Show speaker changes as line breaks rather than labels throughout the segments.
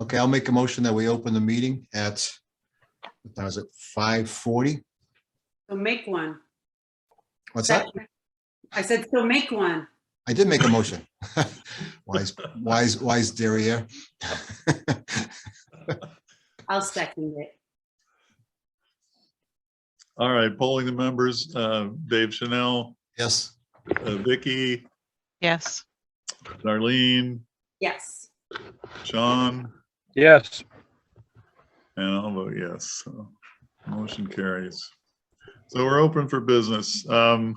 Okay, I'll make a motion that we open the meeting at, what time is it, five forty?
So make one.
What's that?
I said, so make one.
I did make a motion. Wise, wise, wise derriere.
I'll second it.
All right, polling the members, uh, Dave Chanel,
Yes,
uh, Vicky,
Yes,
Darlene,
Yes.
Sean,
Yes,
and I'll vote yes. So, Motion carries. So we're open for business. Um,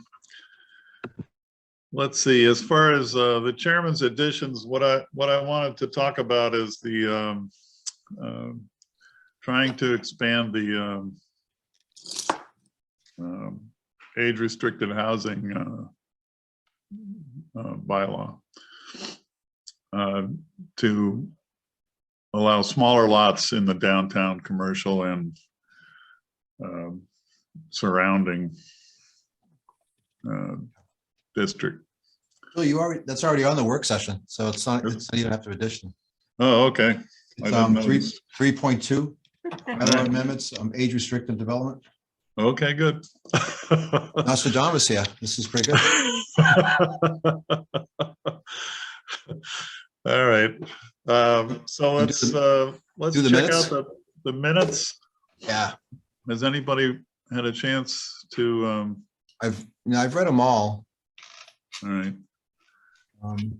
Let's see, as far as uh, the chairman's additions, what I, what I wanted to talk about is the um, um, trying to expand the um, um, age-restricted housing uh, uh, bylaw uh, to allow smaller lots in the downtown commercial and um, surrounding uh, district.
Bill, you already, that's already on the work session, so it's not,
Is it?
it's not even after addition.
Oh, okay. I
It's
didn't
um, three,
notice.
three point two,
Alright.
amendments, um, age restricted development.
Okay, good.
Nostradamus here, this is pretty good.
All right, um, so
You do
let's,
the-
uh, let's
do the
check
minutes?
out the, the minutes.
Yeah,
Has anybody had a chance to, um,
I've, you know, I've read them all.
all right,
Um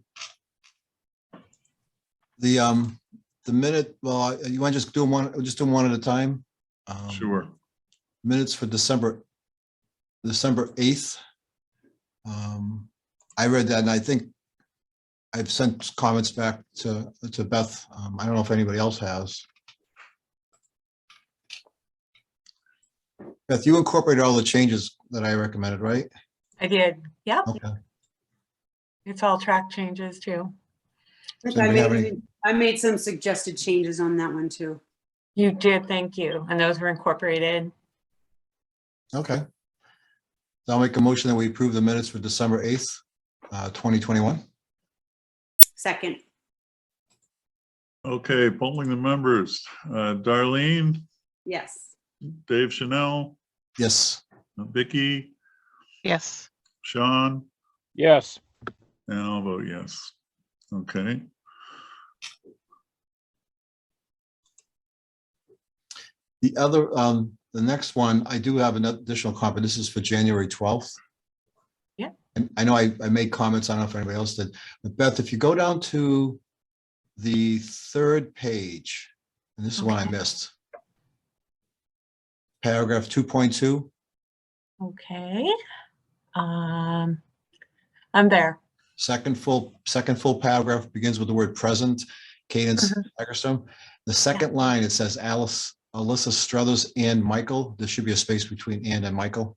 The, um, the minute, well, you want to just do them one, just do them one at a time? Um,
sure.
Minutes for December, December 8th. Um I read that and I think I've sent comments back to, to Beth. Um, I don't know if anybody else has. Beth, you incorporated all the changes that I recommended, right?
I did. Yep,
Okay,
it's all track changes too.
Does
I
anybody have
made,
any-
I made some suggested changes on that one too.
You did, thank you. And those were incorporated.
okay. So I'll make a motion that we approve the minutes for December 8th, uh, 2021.
Second,
Okay, polling the members, uh, Darlene,
yes.
Dave Chanel,
Yes,
Vicky,
yes,
Sean,
yes,
and I'll vote yes. Okay,
the other, um, the next one, I do have an additional comment. This is for January 12th.
Yeah.
And I know I, I made comments, I don't know if anybody else did, but Beth, if you go down to the third page, and this is one I missed. Paragraph 2.2,
Okay. Um, I'm there.
Second full, second full paragraph begins with the word present, Cadence
Mhm.
Eggers. The second line, it says Alice, Alyssa Struthers and Michael. There should be a space between and and Michael.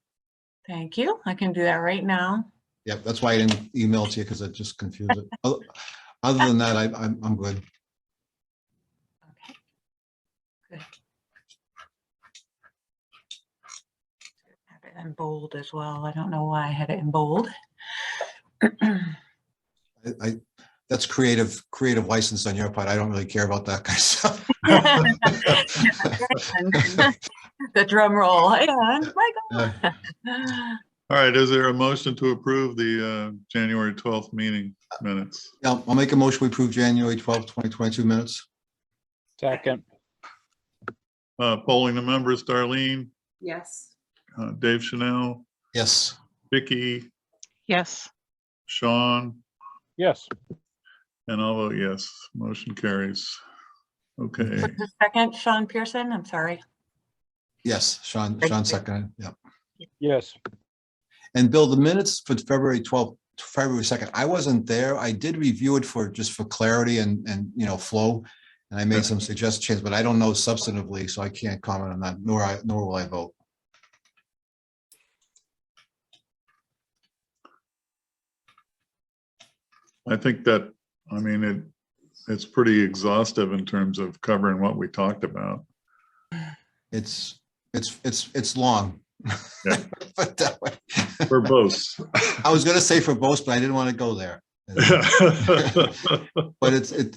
Thank you. I can do that right now.
Yep, that's why I didn't email it to you because it just confused it. Oth- Other than that, I, I'm, I'm good.
Okay. Good. Have it in bold as well. I don't know why I had it in bold.
I- I, that's creative, creative license on your part. I don't really care about that kind of stuff.
The drum roll. And
Uh,
Michael.
all right, is there a motion to approve the, uh, January twelfth meeting minutes?
Yeah, I'll make a motion. We approve January 12th, 2022 minutes.
second,
Uh, polling the members, Darlene,
Yes.
uh, Dave Chanel,
Yes,
Vicky,
yes,
Sean,
yes,
and I'll vote yes. Motion carries. Okay,
So just a Second, Sean Pearson, I'm sorry.
yes, Sean, Sean seconded. Yeah.
yes,
And Bill, the minutes for February twelfth, February second, I wasn't there. I did review it for, just for clarity and, and, you know, flow. And I made some suggestions, but I don't know substantively, so I can't comment on that, nor I, nor will I vote.
I think that, I mean, it, it's pretty exhaustive in terms of covering what we talked about.
It's, it's, it's, it's long.
Yeah.
But that way,
Verbose.
I was gonna say for both, but I didn't want to go there. But it's, it,